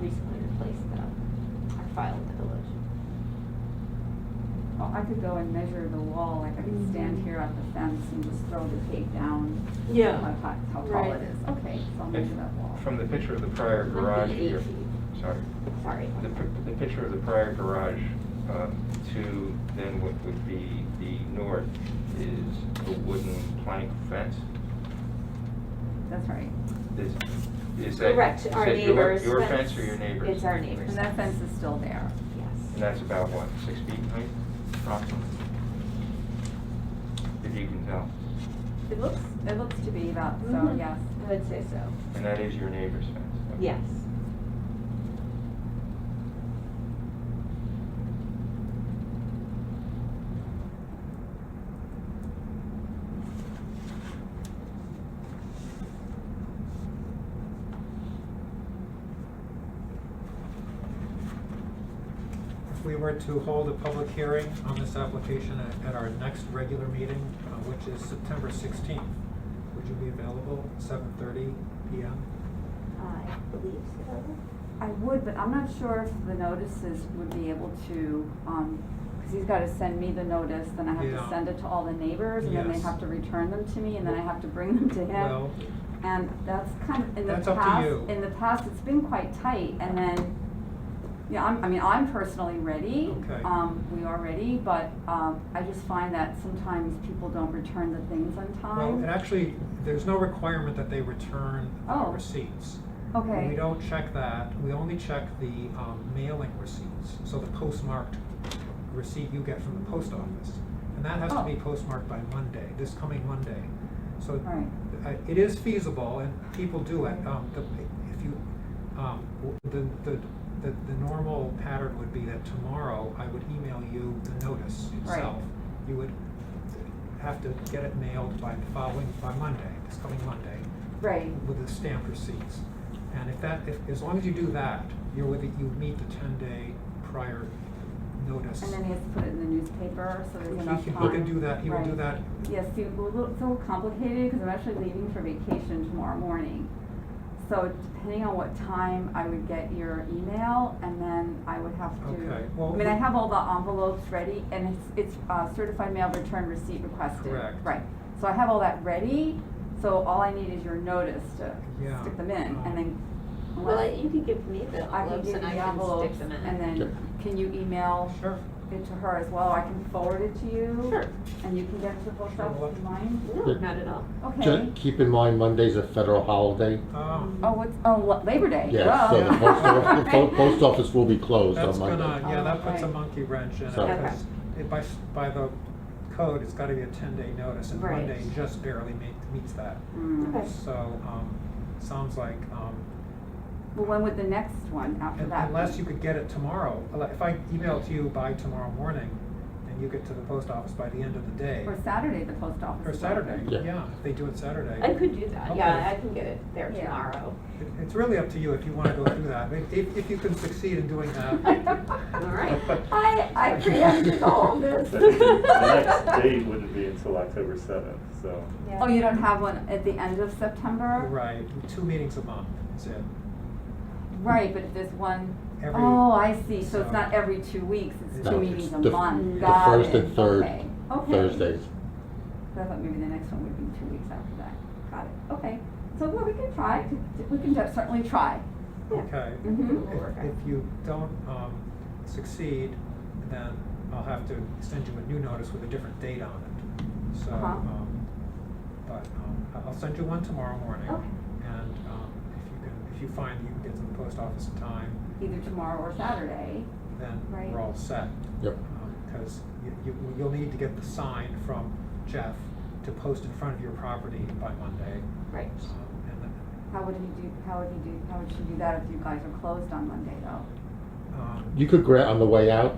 recently replaced the, our file with the village. Well, I could go and measure the wall, like I Mm-hmm. could stand here on the fence and just throw the tape down. How Yeah, high- how tall Right. it is, okay, so I'll measure that wall. And From the picture of the prior garage Eight here, feet. sorry, Sorry. the, pi- the picture of the prior garage um, to then what would be the north is a wooden plank fence. That's right. Is, is that? Correct, is our that your- neighbors. Your fence or your neighbor's? It's our neighbor's. And that fence is still there. And Yes. that's about what, six feet in height, approximately? If you can tell. It looks, it looks to be about, so, Mm-hmm. Mhm. yes. I would say so. And that is your neighbor's fence? okay. Yes. If we were to hold a public hearing on this application at- at our next regular meeting, uh, which is September 16th, would you be available at 7:30 PM? I believe so. I would, but I'm not sure if the notices would be able to, um, because he's got to send me the notice, then I have to Yeah. send it to all the neighbors, and then they Yes. have to return them to me, and then I have to bring them to him. Well, And that's kind of, in the That's up to past, you. in the past, it's been quite tight, and then, yeah, I'm, I mean, I'm personally ready. Okay. Um, we are ready, but, um, I just find that sometimes people don't return the things on well, and time. actually, there's no requirement that they return uh, Oh. receipts. Okay. We don't check that, we only check the um, mailing receipts, so the postmarked receipt you get from the post office. And that has to be Oh. postmarked by Monday, this coming Monday. So Right. uh, it is feasible, and people do it. Um, the, if you, um, w- the, the, the, the normal pattern would be that tomorrow I would email you the notice Right. itself. You would have to get it mailed by the following, by Monday, this coming Monday, Right, with the stamp receipts. And if that, if, as long as you do that, you're with, you meet the ten-day prior notice. and then he has to put it in the newspaper, so there's He enough can- time. he can do that, he will do Right. that. Yes, see, well, it's a little complicated because I'm actually leaving for vacation tomorrow morning. So depending on what time I would get your email and then I would have to. Okay, well, I mean, I we- have all the envelopes ready and it's, it's uh, certified mail return receipt requested. Correct. Right, so I have all that ready, so all I need is your notice to Yeah, stick them in um, and then. well, unless- you can give me the I can envelopes give you and the I can envelopes stick them in. and then can you email Sure. it to her as well? I can forward it to you. Sure, And you can get it to the post Sure, office what- in mine? no, not at all. Okay. Just keep in mind, Monday's a federal holiday. Oh. Oh, what's, oh, what, Labor Day? Yeah, so the Whoa. post, office- the po- post office will be closed That's on gonna, Monday. yeah, that puts a Oh, Right. monkey wrench in it, So- because it, by, s- by the code, it's gotta be a ten-day notice, and Right. Monday just barely meet, meets that. Mm. Okay. So, um, sounds like, um, Well, when would the next one after un- that? unless be? you could get it tomorrow, like, if I email it to you by tomorrow morning, and you get to the post office by the end of the day, Or Saturday, the post office. or is open. Saturday, Yeah. yeah, if they do it Saturday. I could do that, yeah, Okay. I can get it there Yeah. tomorrow. It- It's really up to you if you wanna go through that, If- if, if you can succeed in doing that, All right, I, I preempted all this. The next date wouldn't be until October seventh, so. Oh, you don't have one at the end of September? right, two meetings a month, is it, Right, but if there's one, every. oh, I see, so it's so- not every two weeks, it's two No, meetings it's a the- month, the got first it. and third Okay. Okay. Thursdays. So I thought maybe the next one would be two weeks after that, got it, okay. So, well, we can try, we can certainly try. Okay. Mm-hmm. Mhm. If if you don't um, succeed, then I'll have to send you a new notice with a different date on it. So, Uh-huh. um, but um, I- I'll send you one tomorrow morning. Okay. And um, if you can, if you find that you can get to the post office in time, either tomorrow or Saturday. then Right. we're all set. Yep. Because you, you'll need to get the sign from Jeff to post in front of your property by Monday. right. um, And then, How would he do, how would he do, how would she do that if you guys are closed on Monday though? um, You could grab, on the way out,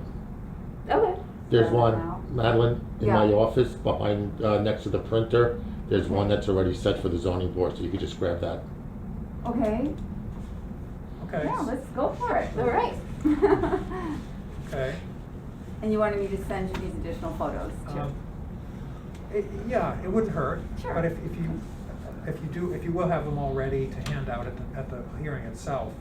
Okay, there's Grab them one, out. Madeline, in Yeah. my office, behind, uh, next to the printer. There's one that's already set for the zoning board, so you could just grab that. Okay, Okay, yeah, let's go for it. all right. okay. And you wanted me to send you these additional photos too? Um, It, yeah, it wouldn't hurt. Sure. But if, if you, if you do, if you will have them all ready to hand out at the, at the hearing itself,